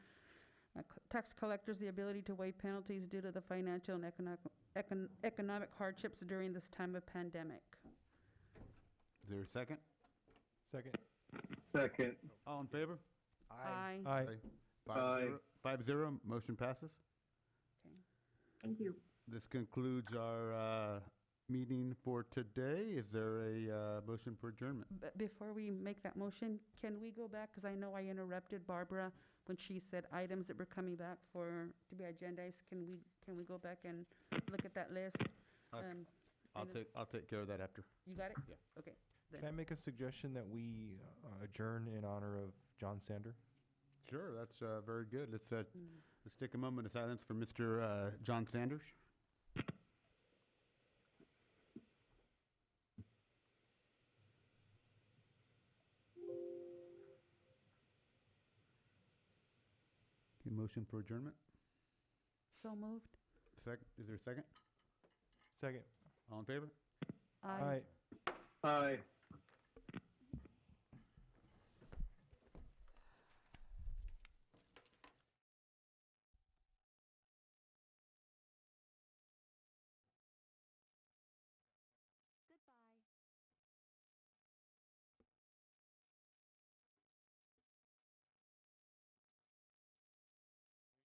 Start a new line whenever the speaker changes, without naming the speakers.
tax collectors the ability to waive penalties due to the financial and economic- econ- economic hardships during this time of pandemic.
Is there a second?
Second.
Second.
All in favor?
Aye.
Aye.
Five zero. Five zero, motion passes.
Okay.
Thank you.
This concludes our uh, meeting for today. Is there a uh, motion for adjournment?
But before we make that motion, can we go back, because I know I interrupted Barbara when she said items that were coming back for, to be agendized, can we, can we go back and look at that list?
Okay.
Um,
I'll
and the-
take, I'll take care of that after.
You got it?
Yeah.
Okay.
Can I make a suggestion that we uh, adjourn in honor of John Sander?
Sure, that's uh, very good. Let's, uh, let's take a moment of silence for Mr. uh, John Sanders. Okay, Motion for adjournment?
So moved?
Sec, is there a second?
Second.
All in favor?
Aye.
Aye.